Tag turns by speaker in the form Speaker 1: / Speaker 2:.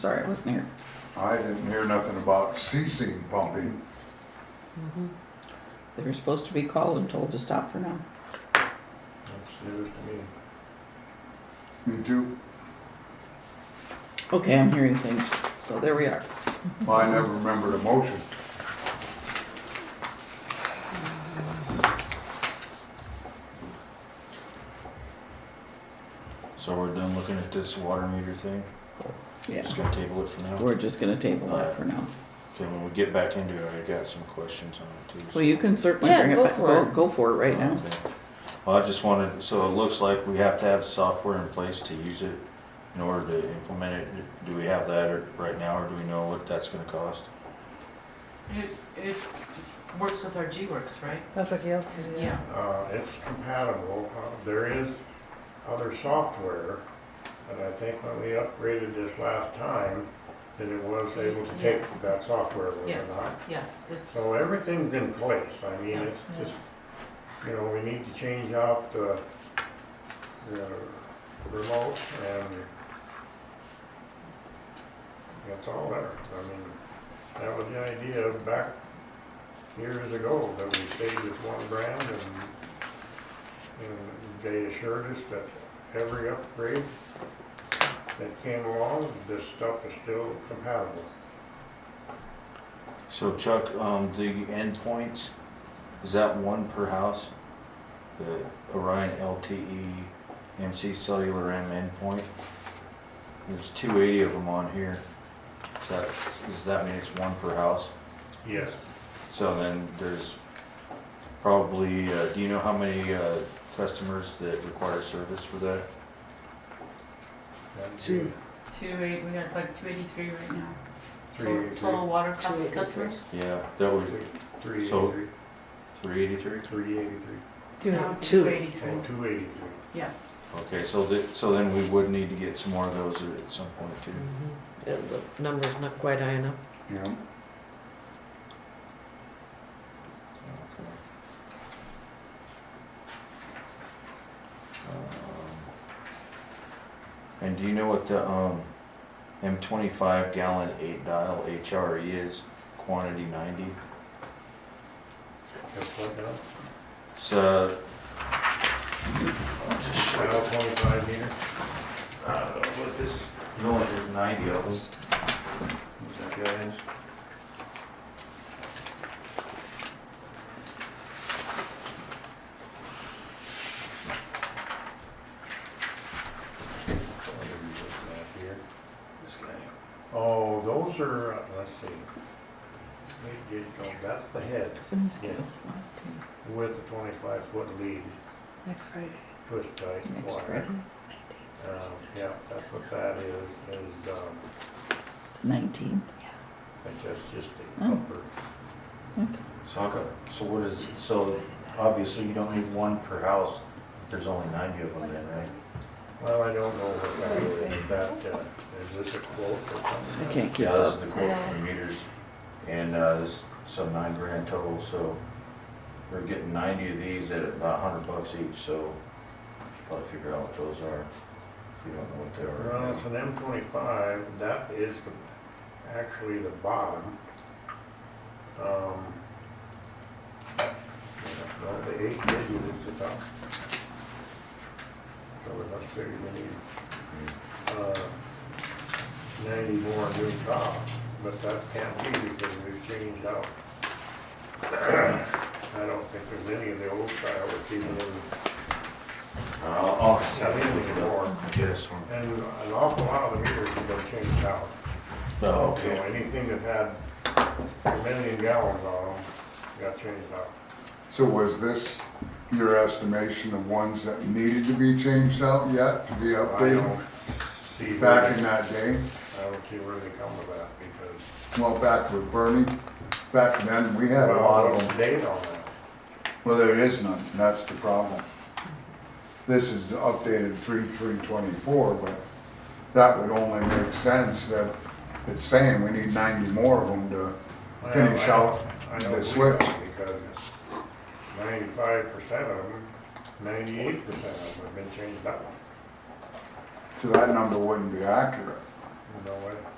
Speaker 1: Sorry, I wasn't here.
Speaker 2: I didn't hear nothing about ceasing pumping.
Speaker 1: They were supposed to be called and told to stop for now.
Speaker 3: That's news to me.
Speaker 2: Me too.
Speaker 1: Okay, I'm hearing things, so there we are.
Speaker 2: Well, I never remembered a motion.
Speaker 4: So we're done looking at this water meter thing?
Speaker 1: Yeah,
Speaker 4: Just gonna table it for now?
Speaker 1: we're just gonna table that for now.
Speaker 4: Okay, when we get back into it, I got some questions on it too. so-
Speaker 1: Well, you can certainly
Speaker 5: Yeah,
Speaker 1: bring it
Speaker 5: go
Speaker 1: back,
Speaker 5: for
Speaker 1: go,
Speaker 5: it.
Speaker 1: go for it right now.
Speaker 4: Okay. Well, I just wanted, so it looks like we have to have software in place to use it in order to implement it. Do we have that or- right now, or do we know what that's gonna cost?
Speaker 6: It, it works with our G-Works, right?
Speaker 5: That's what Gail.
Speaker 3: Uh, it's compatible. Uh, There is other software, but I think when we upgraded this last time, that it was able to take
Speaker 6: Yes.
Speaker 3: that software, was it
Speaker 6: Yes,
Speaker 3: not?
Speaker 6: yes, it's,
Speaker 3: So everything's in place. I mean,
Speaker 6: Yeah.
Speaker 3: it's just, you know, we need to change out the, the remote and that's all there. I mean, that was the idea back years ago, that we stayed with one brand and, and Uh, they assured us that every upgrade that came along, this stuff is still compatible.
Speaker 4: So Chuck, um, the endpoints, is that one per house? The Orion LTE MC cellular M endpoint? There's two eighty of them on here. Is that, does that mean it's one per house?
Speaker 3: Yes.
Speaker 4: So then there's probably, uh, do you know how many, uh, customers that require service for that?
Speaker 3: And
Speaker 4: Two.
Speaker 6: two eight, we got like two eighty-three right now.
Speaker 3: Three,
Speaker 6: Total- Total water cost
Speaker 5: 283.
Speaker 6: to customers?
Speaker 4: Yeah, that would,
Speaker 3: Three
Speaker 4: So-
Speaker 3: eighty-three,
Speaker 4: three eighty-three?
Speaker 3: three eighty-three,
Speaker 6: No, Two
Speaker 5: Two.
Speaker 6: eighty-three,
Speaker 3: and two eighty-three.
Speaker 6: yeah.
Speaker 4: Okay, so that, so then we would need to get some more of those at some point too.
Speaker 5: The number's not quite high enough.
Speaker 2: Yeah.
Speaker 4: Okay. Um, And do you know what the, um, M twenty-five gallon eight dial HRE is, quantity ninety?
Speaker 3: Just like that,
Speaker 4: It's, uh,
Speaker 3: dial twenty-five meter.
Speaker 4: Uh, what this, you only have ninety of us. Is that good?
Speaker 3: What are you looking at here?
Speaker 4: This guy.
Speaker 3: Oh, those are, uh, let's see. They did go- That's the head with the twenty-five foot lead,
Speaker 5: Next Friday.
Speaker 3: twist tight
Speaker 1: Next
Speaker 3: wire.
Speaker 1: Friday,
Speaker 3: Uh, yeah, that's what that is, is, um,
Speaker 1: the nineteenth.
Speaker 3: it's just, just the
Speaker 1: Oh.
Speaker 3: upper.
Speaker 4: So how co- so what is, so obviously you don't need one per house if there's only ninety of them then, right?
Speaker 3: Well, I don't know what that is, is that, uh, is this a quote or
Speaker 1: I
Speaker 3: something?
Speaker 1: can't keep
Speaker 4: Yeah, this is
Speaker 1: up.
Speaker 4: the quote from meters, and, uh, this, so nine grand total, so we're getting ninety of these at about a hundred bucks each, so probably figure out what those are, if you don't know what they
Speaker 3: Well, it's
Speaker 4: are.
Speaker 3: an M twenty-five, that is the- actually the bottom. Um, No, the eight fifty is the top. So we must figure we need, uh, ninety more new tops, but that can't be because we've changed out. I don't think there's any of the old style that's even in,
Speaker 4: I'll, I'll,
Speaker 3: not in anymore.
Speaker 4: Yes.
Speaker 3: And an awful lot of the meters have been changed out.
Speaker 4: Oh,
Speaker 3: So
Speaker 4: okay.
Speaker 3: anything that had a million gallons on them got changed out.
Speaker 2: So was this your estimation of ones that needed to be changed out yet to be
Speaker 3: I
Speaker 2: updated
Speaker 3: don't see where,
Speaker 2: back in
Speaker 3: they-
Speaker 2: that day?
Speaker 3: I don't see where they come with that because.
Speaker 2: Well, back with Bernie, back then, we had a
Speaker 3: Well,
Speaker 2: lot of
Speaker 3: what's
Speaker 2: them.
Speaker 3: the Date on that.
Speaker 2: Well, there is none, and that's the problem. This is updated three, three twenty-four, but that would only make sense that it's saying we need ninety more of them to
Speaker 3: Well,
Speaker 2: finish
Speaker 3: I
Speaker 2: out
Speaker 3: don't- I don't
Speaker 2: the
Speaker 3: believe
Speaker 2: switch.
Speaker 3: that Because ninety-five percent of them, ninety-eight percent of them have been changed out.
Speaker 2: So that number wouldn't be accurate.
Speaker 3: No way.